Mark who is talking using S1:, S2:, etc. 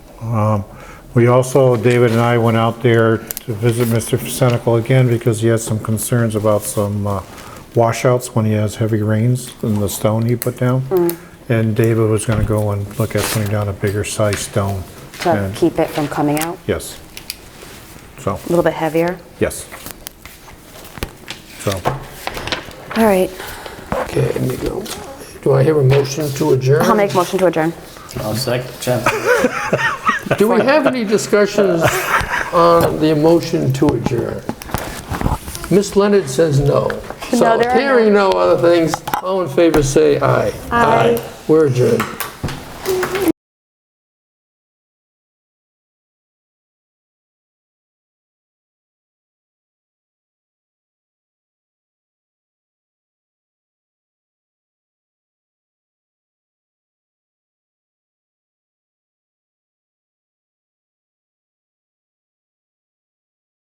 S1: Um, We also, David and I went out there to visit Mr. Senical again because he has some concerns about some uh, washouts when he has heavy rains and the stone he put down. And David was gonna go and look at putting down a bigger size stone.
S2: to
S1: And-
S2: keep it from coming out,
S1: Yes. So,
S2: a little bit heavier.
S1: yes. So,
S2: All right,
S3: Okay, there you go. Do I hear a motion to adjourn?
S2: I'll make motion to adjourn.
S4: I'll second, Chance.
S3: Do we have any discussions on the motion to adjourn? Miss Leonard says no.
S2: No, there
S3: So
S2: are no-
S3: hearing no other things, all in favor say aye.
S2: Aye.
S3: We're adjourned.